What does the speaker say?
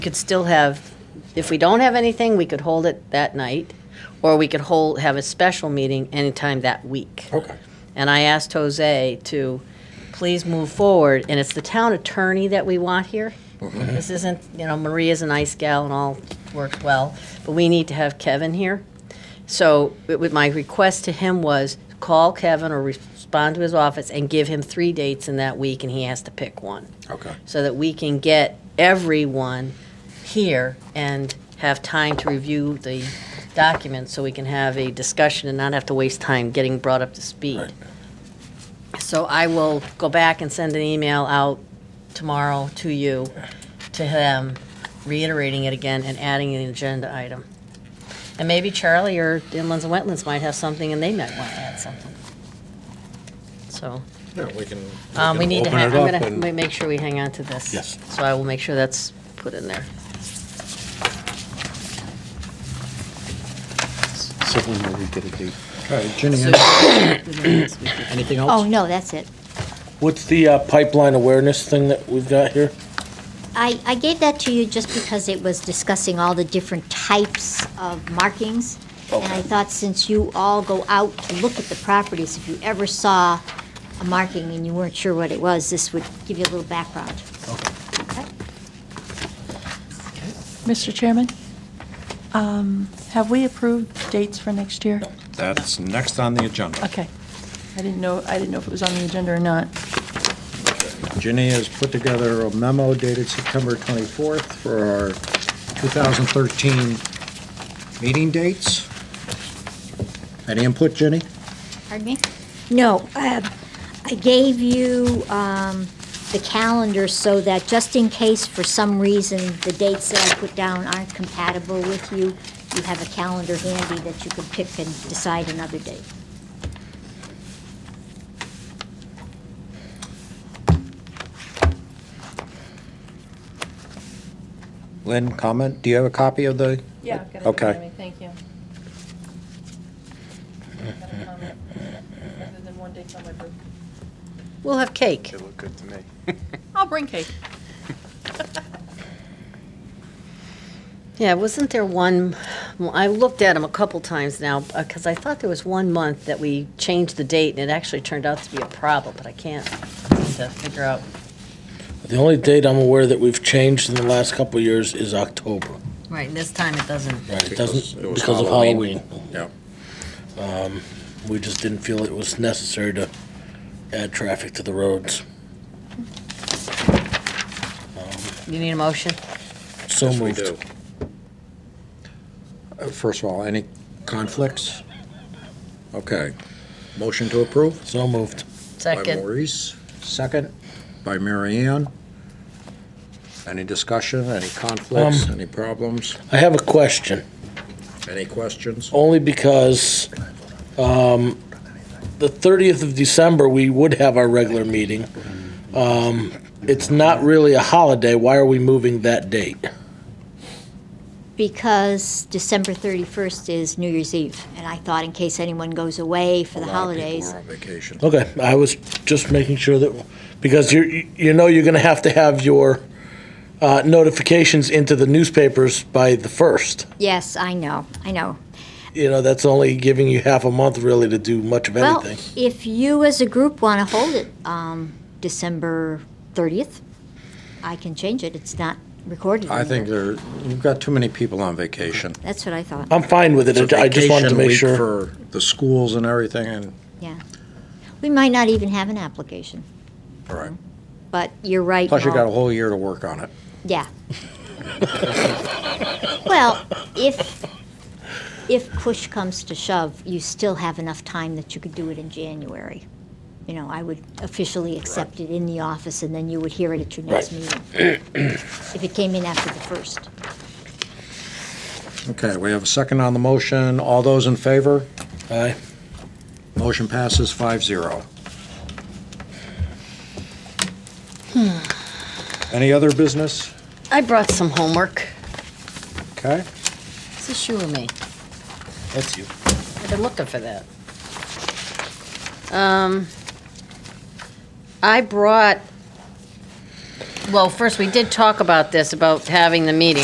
could still have, if we don't have anything, we could hold it that night, or we could hold, have a special meeting anytime that week. Oh. Okay. And I asked Jose to please move forward, and it's the town attorney that we want here. This isn't, you know, Maria's a nice gal and all worked well, but we need to have Kevin here. So it would, my request to him was call Kevin or respond to his office and give him three dates in that week, and he has to pick one Okay. so that we can get everyone here and have time to review the documents so we can have a discussion and not have to waste time getting brought up to speed. Right. So I will go back and send an email out tomorrow to you, to him, reiterating it again and adding an agenda item. And maybe Charlie or Inlands and Wetlands might have something and they might want to add something. So. Yeah, we can. Um, we can need to, open ha- I'm it up gonna and- ma- make sure we hang on to this. Yes. So I will make sure that's put in there. Certainly will we get a date. Okay, Ginny, anything Oh, else? no, that's it. What's the uh, pipeline awareness thing that we've got here? I, I gave that to you just because it was discussing all the different types of markings. And I thought since you all go out to look at the properties, if you ever saw a marking and you weren't sure what it was, this would give you a little background. Mr. Chairman, um, have we approved dates for next year? That's next on the agenda. Okay. I didn't know, I didn't know if it was on the agenda or not. Ginny has put together a memo dated September 24th for our 2013 meeting dates. Any input, Ginny? Pardon me? No, uh, I gave you um, the calendar so that just in case for some reason the dates that I put down aren't compatible with you, you have a calendar handy that you can pick and decide another date. Lynn, comment? Do you have a copy of the? Yeah, I've got it in front of Okay. me. thank you. We'll have cake. looked good to me. I'll bring cake. Yeah, wasn't there one, well, I looked at them a couple times now, because I thought there was one month that we changed the date, and it actually turned out to be a problem, but I can't seem to figure out. The only date I'm aware that we've changed in the last couple of years is October. Right, and this time it doesn't. Right. It because it doesn't, was because of Halloween. Halloween. We just didn't feel it was necessary to add traffic to the roads. You need a motion? So Yes, we moved. do. Uh, First of all, any conflicts? Okay. Motion to approve? So moved. By Second. Maurice, second by Mary Ann. Any discussion, any conflicts, Um, any problems, I have a question, any questions? only because um, the 30th of December, we would have our regular meeting. Um, It's not really a holiday. Why are we moving that date? Because December 31st is New Year's Eve, and I thought in case anyone goes away for the holidays. A lot of people are on vacation. Okay, I was just making sure that, because you, you know you're going to have to have your uh, notifications into the newspapers by the first. Yes, I know, I know. You know, that's only giving you half a month really to do much of Well, anything. if you as a group want to hold it um, December 30th, I can change it. It's not recorded. I in think here. there, you've got too many people on vacation. That's what I thought, I'm fine with It's it, a I just wanted to vacation make week sure. For the schools and everything, and, yeah. We might not even have an application, all right. but you're right. Plus, you Paul. got a whole year to work on it. Yeah. Well, if, if push comes to shove, you still have enough time that you could do it in January. You know, I would officially accept it in the office, and then you would hear it at your next meeting. If it came in after the first. Okay, we have a second on the motion. All those in favor? Aye. Motion passes five zero. Any other business? I brought some homework. Okay. Is this you or me? That's you. I've been looking for that. Um, I brought well, first, we did talk about this, about having the meeting.